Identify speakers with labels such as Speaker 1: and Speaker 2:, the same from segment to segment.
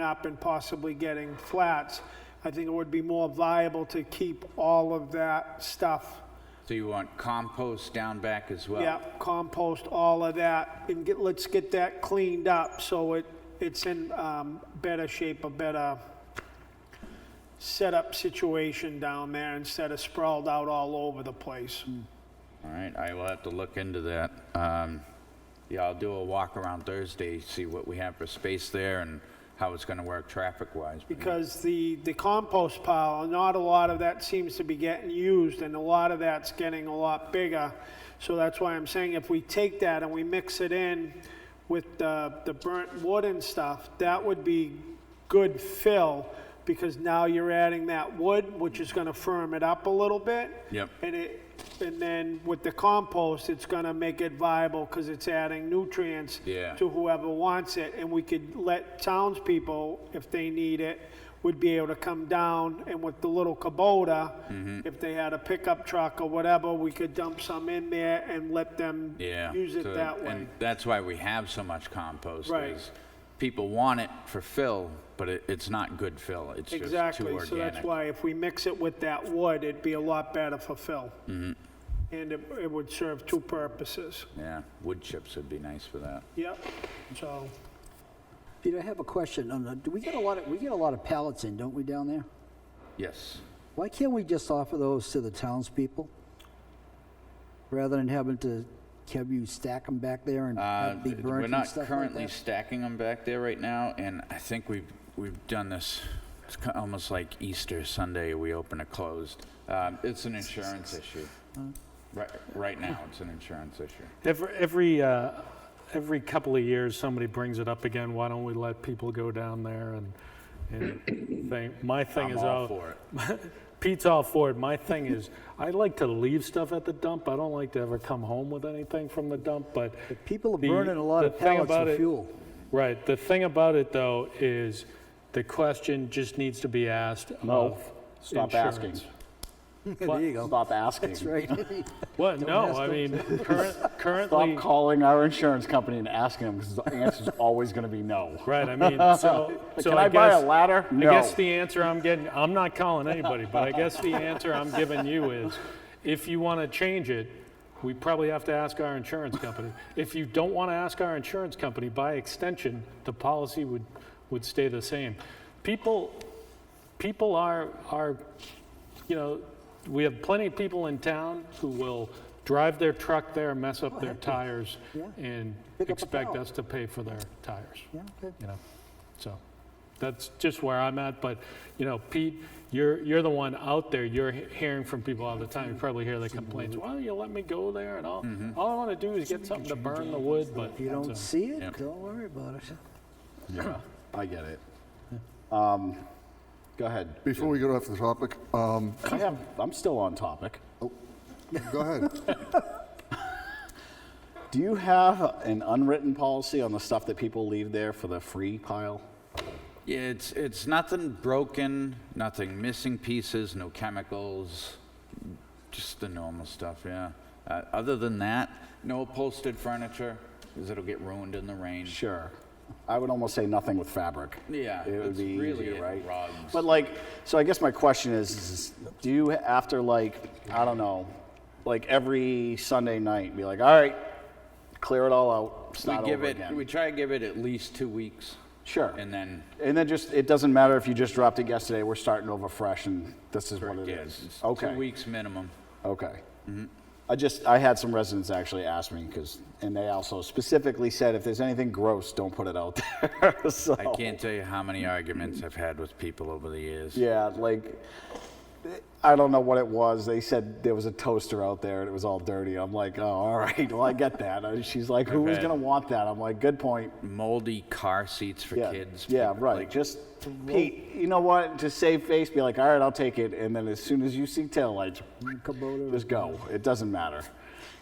Speaker 1: up and possibly getting flats, I think it would be more viable to keep all of that stuff.
Speaker 2: So you want compost down back as well?
Speaker 1: Yeah, compost, all of that, and get, let's get that cleaned up so it, it's in um, better shape, a better setup situation down there instead of sprawled out all over the place.
Speaker 2: All right, I will have to look into that. Um, Yeah, I'll do a walk around Thursday, see what we have for space there and how it's going to work traffic-wise.
Speaker 1: Because the, the compost pile, not a lot of that seems to be getting used, and a lot of that's getting a lot bigger. So that's why I'm saying if we take that and we mix it in with the, the burnt wood and stuff, that would be good fill, because now you're adding that wood, which is gonna firm it up a little bit.
Speaker 2: Yep.
Speaker 1: And it, and then with the compost, it's gonna make it viable, because it's adding nutrients
Speaker 2: Yeah.
Speaker 1: to whoever wants it, and we could let townspeople, if they need it, would be able to come down, and with the little
Speaker 2: Mm-hmm.
Speaker 1: Kubota, if they had a pickup truck or whatever, we could dump some in there and let them
Speaker 2: Yeah.
Speaker 1: use it
Speaker 2: so-
Speaker 1: that way.
Speaker 2: And that's why we have so much compost.
Speaker 1: Right.
Speaker 2: is People want it for fill, but it, it's not good fill. It's just too
Speaker 1: Exactly,
Speaker 2: organic.
Speaker 1: so that's why if we mix it with that wood, it'd be a lot better for Phil.
Speaker 2: Mm-hmm.
Speaker 1: And it, it would serve two purposes.
Speaker 2: Yeah, wood chips would be nice for that.
Speaker 1: Yep, so,
Speaker 3: Peter, I have a question on the, do we get a lot of, we get a lot of pallets in, don't we, down there?
Speaker 2: Yes.
Speaker 3: Why can't we just offer those to the townspeople? Rather than having to, have you stack them back there and
Speaker 2: Uh,
Speaker 3: have be
Speaker 2: We're
Speaker 3: burnt and
Speaker 2: not
Speaker 3: stuff like
Speaker 2: currently
Speaker 3: that?
Speaker 2: stacking them back there right now, and I think we've, we've done this, it's ki- almost like Easter Sunday, we open and closed. Um, It's an insurance issue. Right, right now, it's an insurance issue.
Speaker 4: Every, every, uh, every couple of years, somebody brings it up again, why don't we let people go down there and, and thing, my thing
Speaker 2: I'm
Speaker 4: is,
Speaker 2: all
Speaker 4: oh,
Speaker 2: for it.
Speaker 4: Pete's all for it, my thing is, I like to leave stuff at the dump, I don't like to ever come home with anything from the dump, but,
Speaker 3: People are
Speaker 4: the-
Speaker 3: burning a lot
Speaker 4: the
Speaker 3: of
Speaker 4: thing
Speaker 3: pallets
Speaker 4: about
Speaker 3: for
Speaker 4: it-
Speaker 3: fuel.
Speaker 4: right, the thing about it, though, is the question just needs to be asked
Speaker 5: No,
Speaker 4: of
Speaker 5: stop asking.
Speaker 4: insurance.
Speaker 3: There you go.
Speaker 5: Stop asking.
Speaker 3: That's right.
Speaker 4: What, no,
Speaker 3: ask
Speaker 4: I
Speaker 3: them.
Speaker 4: mean, current- currently.
Speaker 5: Stop calling our insurance company and asking them because the answer's always going to be no.
Speaker 4: Right, I mean, so, so
Speaker 5: Can
Speaker 4: I
Speaker 5: I buy a
Speaker 4: guess-
Speaker 5: ladder?
Speaker 4: I guess
Speaker 5: No.
Speaker 4: the answer I'm getting, I'm not calling anybody, but I guess the answer I'm giving you is, if you want to change it, we probably have to ask our insurance company. If you don't want to ask our insurance company, by extension, the policy would, would stay the same. People, people are, are, you know, we have plenty of people in town who will drive their truck there, mess up their tires,
Speaker 3: Yeah.
Speaker 4: and
Speaker 3: Pick up a
Speaker 4: expect
Speaker 3: pile.
Speaker 4: us to pay for their tires
Speaker 3: Yeah, okay.
Speaker 4: you know, so that's just where I'm at, but, you know, Pete, you're, you're the one out there, you're he- hearing from people all the time, you probably hear the complaints, why don't you let me go there and all, all I wanna do is get something to burn the wood, but.
Speaker 3: If you don't
Speaker 4: so-
Speaker 3: see it, don't worry about it.
Speaker 5: I get it. Um, Go ahead.
Speaker 6: Before we get off the topic, um,
Speaker 5: I have, I'm still on topic.
Speaker 6: go ahead.
Speaker 5: Do you have an unwritten policy on the stuff that people leave there for the free pile?
Speaker 2: Yeah, it's, it's nothing broken, nothing missing pieces, no chemicals, just the normal stuff, yeah. Uh, Other than that, no upholstered furniture, because it'll get ruined in the rain.
Speaker 5: Sure. I would almost say nothing with fabric.
Speaker 2: Yeah,
Speaker 5: It would
Speaker 2: that's
Speaker 5: be
Speaker 2: really
Speaker 5: easier,
Speaker 2: it,
Speaker 5: right?
Speaker 2: rugs.
Speaker 5: But like, so I guess my question is, is do you after like, I don't know, like every Sunday night, be like, all right, clear it all out,
Speaker 2: We
Speaker 5: start
Speaker 2: give
Speaker 5: over
Speaker 2: it,
Speaker 5: again?
Speaker 2: we try to give it at least two weeks,
Speaker 5: Sure.
Speaker 2: and then
Speaker 5: And then just, it doesn't matter if you just dropped it yesterday, we're starting over fresh and this is what it
Speaker 2: Yeah,
Speaker 5: is.
Speaker 2: it's
Speaker 5: Okay.
Speaker 2: Two weeks Mm-hmm. minimum.
Speaker 5: Okay. I just, I had some residents actually ask me because, and they also specifically said, if there's anything gross, don't put it out there. so,
Speaker 2: I can't tell you how many arguments I've had with people over the years.
Speaker 5: yeah, like, I don't know what it was. They said there was a toaster out there and it was all dirty. I'm like, oh, all right. Well, I get that. And she's like, who is
Speaker 2: had-
Speaker 5: going to want that? I'm like, good point.
Speaker 2: Moldy car seats for
Speaker 5: Yeah,
Speaker 2: kids.
Speaker 5: yeah,
Speaker 2: people,
Speaker 5: right.
Speaker 2: like,
Speaker 5: just Pete, you know what? To save face, be like, all right, I'll take it. And then as soon as you see taillights, just go. It doesn't matter.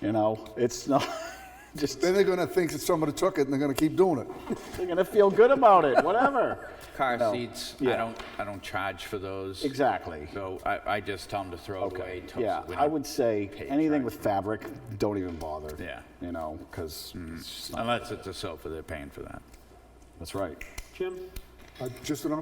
Speaker 5: You know, it's not. just
Speaker 6: Then they're gonna think that somebody took it and they're gonna keep doing it.
Speaker 5: they're gonna feel good about it. Whatever.
Speaker 2: Car
Speaker 5: No,
Speaker 2: seats. I
Speaker 5: yeah.
Speaker 2: don't. I don't charge for those.
Speaker 5: Exactly.
Speaker 2: So I, I just tell them to throw it away.
Speaker 5: Okay.
Speaker 2: toss
Speaker 5: Yeah,
Speaker 2: it. We
Speaker 5: I
Speaker 2: don't-
Speaker 5: would say
Speaker 2: pay
Speaker 5: anything
Speaker 2: charge.
Speaker 5: with fabric, don't even bother.
Speaker 2: Yeah. Mm.
Speaker 5: You know, because
Speaker 2: Unless it's a sofa, they're paying for that.
Speaker 5: that's right.
Speaker 1: Jim,
Speaker 6: Uh, Just an